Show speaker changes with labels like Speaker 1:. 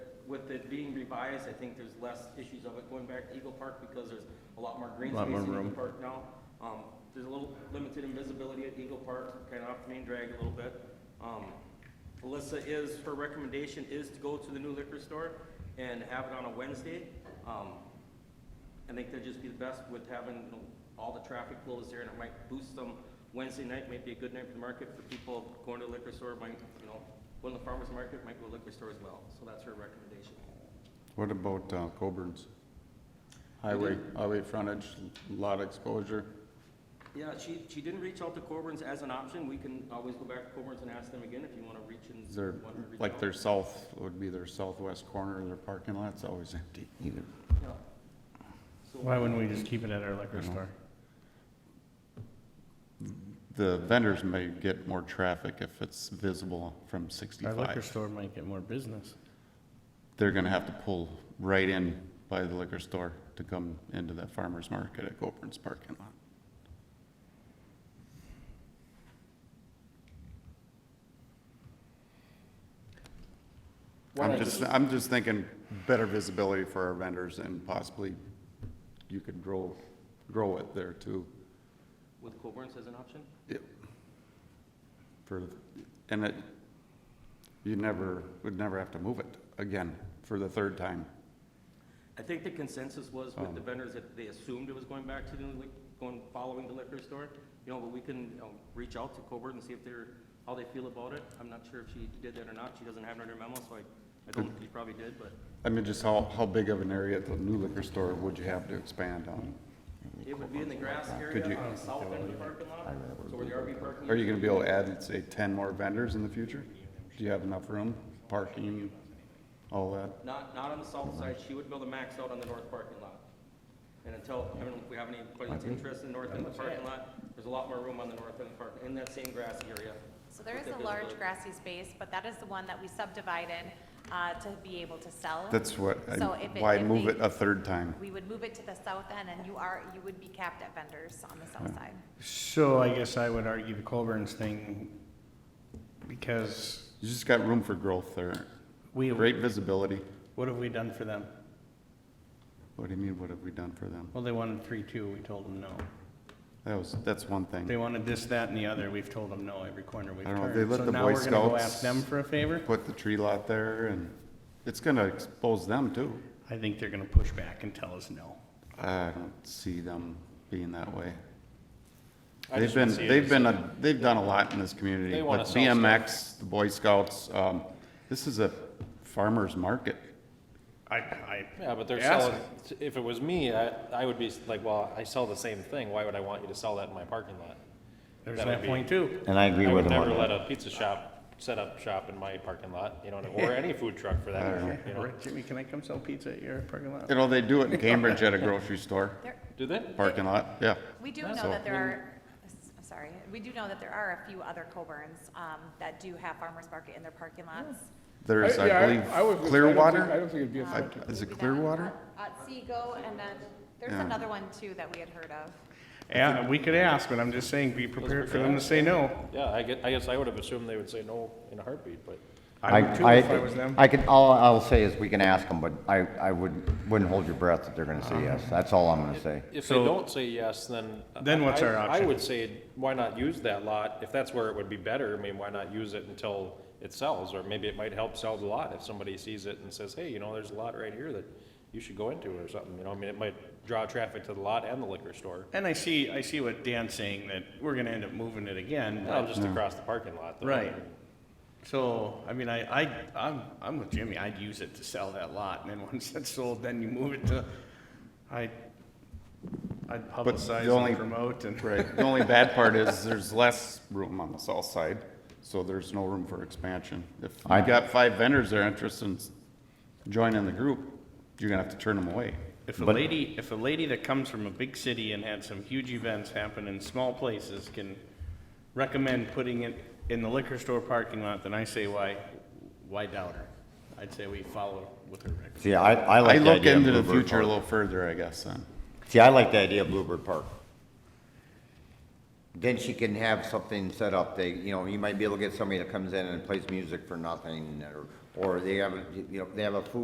Speaker 1: with it being revised, I think there's less issues of it going back to Eagle Park because there's a lot more green
Speaker 2: Lot
Speaker 1: space
Speaker 2: more
Speaker 1: in Eagle
Speaker 2: room.
Speaker 1: Park now. Um, there's a little limited invisibility at Eagle Park, kind of off the main drag a little bit. Um, Alyssa is, her recommendation is to go to the new liquor store and have it on a Wednesday. Um, I think that'd just be the best with having you know, all the traffic flows there, and it might boost them. Wednesday night might be a good night for the market for people going to the liquor store, might, you know, going to the farmer's market, might go to liquor store as well. So that's her recommendation.
Speaker 2: What about uh, Coburn's? Highway, highway frontage, lot exposure,
Speaker 1: Yeah, she, she didn't reach out to Coburn's as an option. We can always go back to Coburn's and ask them again if you want to reach and.
Speaker 2: is there,
Speaker 1: want to reach
Speaker 2: like
Speaker 1: out.
Speaker 2: their south, would be their southwest corner, their parking lot's always empty either.
Speaker 1: Yeah. So-
Speaker 3: Why wouldn't we just keep it at our liquor store?
Speaker 2: The vendors may get more traffic if it's visible from
Speaker 3: Our liquor
Speaker 2: sixty-five.
Speaker 3: store might get more business.
Speaker 2: They're gonna have to pull right in by the liquor store to come into that farmer's market at Coburn's parking lot.
Speaker 4: What I
Speaker 2: I'm just, I'm just thinking better visibility for our vendors and possibly you could grow, grow it there too.
Speaker 1: With Coburn's as an option?
Speaker 2: Yep. For, and it, you never, would never have to move it again for the third time.
Speaker 1: I think the consensus was with the
Speaker 2: Um,
Speaker 1: vendors that they assumed it was going back to the, lic- going, following the liquor store. You know, but we can, you know, reach out to Coburn and see if they're, how they feel about it. I'm not sure if she did that or not. She doesn't have it in her memo, so I, I don't think she probably did, but
Speaker 2: I mean, just how, how big of an area at the new liquor store would you have to expand on?
Speaker 1: it would be in the grass
Speaker 2: Could you-
Speaker 1: area on the south end of the parking lot, so where the RV parking.
Speaker 2: Are you gonna be able to add, say, ten more vendors in the future? Do you have enough room, parking, all that?
Speaker 1: Not, not on the south side. She would build a max out on the north parking lot. And until, I mean, if we have anybody that's interested in the north end of the parking lot, there's a lot more room on the north end of the park, in that same grass area.
Speaker 5: So there
Speaker 1: With
Speaker 5: is
Speaker 1: the
Speaker 5: a large
Speaker 1: visibility.
Speaker 5: grassy space, but that is the one that we subdivided uh, to be able to sell.
Speaker 2: That's what, I-
Speaker 5: So if it-
Speaker 2: why
Speaker 5: if
Speaker 2: move
Speaker 5: they-
Speaker 2: it a third time?
Speaker 5: We would move it to the south end, and you are, you would be capped at vendors on the south side.
Speaker 3: So I guess I would argue the Colburn's thing because
Speaker 2: You just got room for growth there.
Speaker 3: we,
Speaker 2: Great visibility.
Speaker 3: what have we done for them?
Speaker 2: What do you mean, what have we done for them?
Speaker 3: Well, they wanted three, two, we told them no.
Speaker 2: That was, that's one
Speaker 3: They
Speaker 2: thing.
Speaker 3: wanted this, that, and the other, we've told them no every corner we've
Speaker 2: I don't know, they
Speaker 3: turned.
Speaker 2: let
Speaker 3: So
Speaker 2: the
Speaker 3: now
Speaker 2: Boy
Speaker 3: we're gonna go
Speaker 2: Scouts-
Speaker 3: ask them for a favor?
Speaker 2: Put the tree lot there and it's gonna expose them too.
Speaker 3: I think they're gonna push back and tell us no.
Speaker 2: I don't see them being that way.
Speaker 4: I
Speaker 2: They've
Speaker 4: just don't
Speaker 2: been,
Speaker 4: see it
Speaker 2: they've
Speaker 4: as
Speaker 2: been, a- they've done a lot in this community.
Speaker 4: They wanna
Speaker 2: But
Speaker 4: sell stuff.
Speaker 2: BMX, the Boy Scouts, um, this is a farmer's market.
Speaker 3: I, I.
Speaker 4: Yeah, but they're
Speaker 3: asked
Speaker 4: selling, if it was me, I, I would be like, well, I sell the same thing, why would I want you to sell that in my parking lot?
Speaker 3: There's
Speaker 4: That would
Speaker 3: that
Speaker 4: be-
Speaker 3: point too.
Speaker 6: And I agree
Speaker 4: I
Speaker 6: with
Speaker 4: would
Speaker 6: him on
Speaker 4: never let
Speaker 6: that.
Speaker 4: a pizza shop set up shop in my parking lot, you know, or any food truck for that matter, you know?
Speaker 3: Jimmy, can I come sell pizza at your parking lot?
Speaker 2: You know, they do it in Cambridge at a grocery store,
Speaker 5: There,
Speaker 4: Do they?
Speaker 2: parking lot, yeah.
Speaker 5: we do
Speaker 4: That's
Speaker 5: know
Speaker 4: all.
Speaker 5: that there are,
Speaker 2: Mm.
Speaker 5: s- I'm sorry, we do know that there are a few other Coburns um, that do have farmer's market in their parking lots.
Speaker 2: There's,
Speaker 7: yeah,
Speaker 2: I
Speaker 7: would-
Speaker 2: believe,
Speaker 7: I
Speaker 2: Clearwater?
Speaker 7: don't think it'd be a
Speaker 2: I-
Speaker 7: threat. to-
Speaker 2: Is it
Speaker 5: Maybe that
Speaker 2: Clearwater?
Speaker 5: At at Seago, and then there's
Speaker 2: Yeah.
Speaker 5: another one too that we had heard of.
Speaker 3: Yeah, we could ask, but I'm just saying, be prepared for them to say no.
Speaker 4: Yeah, I guess, I guess I would have assumed they would say no in a heartbeat, but
Speaker 3: I would too if I was them.
Speaker 6: I can, all I'll say is we can ask them, but I, I would, wouldn't hold your breath that they're gonna say yes. That's all I'm gonna say.
Speaker 4: if they
Speaker 3: So-
Speaker 4: don't say yes, then.
Speaker 3: Then what's our
Speaker 4: I- I
Speaker 3: option?
Speaker 4: would say, why not use that lot? If that's where it would be better, I mean, why not use it until it sells? Or maybe it might help sell the lot if somebody sees it and says, hey, you know, there's a lot right here that you should go into or something, you know? I mean, it might draw traffic to the lot and the liquor store.
Speaker 3: And I see, I see what Dan's saying, that we're gonna end up moving it again.
Speaker 4: No, just across the parking lot. though.
Speaker 3: Right. So, I mean, I, I, I'm, I'm with Jimmy, I'd use it to sell that lot, and then once it's sold, then you move it to, I, I'd publicize
Speaker 2: only-
Speaker 3: and promote and.
Speaker 2: Right, the only bad part is there's less room on the south side, so there's no room for expansion. If
Speaker 6: I-
Speaker 2: you've got five vendors that are interested in joining the group, you're gonna have to turn them away.
Speaker 3: If a
Speaker 6: But-
Speaker 3: lady, if a lady that comes from a big city and had some huge events happen in small places can recommend putting it in the liquor store parking lot, then I say why, why doubt her? I'd say we follow with her recommendation.
Speaker 6: See, I, I
Speaker 2: I
Speaker 6: like the
Speaker 2: look
Speaker 6: idea of
Speaker 2: into the
Speaker 6: Bluebird
Speaker 2: future a
Speaker 6: Park.
Speaker 2: little further, I guess, then.
Speaker 6: See, I like the idea of Bluebird Park. Then she can have something set up, they, you know, you might be able to get somebody that comes in and plays music for nothing, or, or they have, a you know, they have a food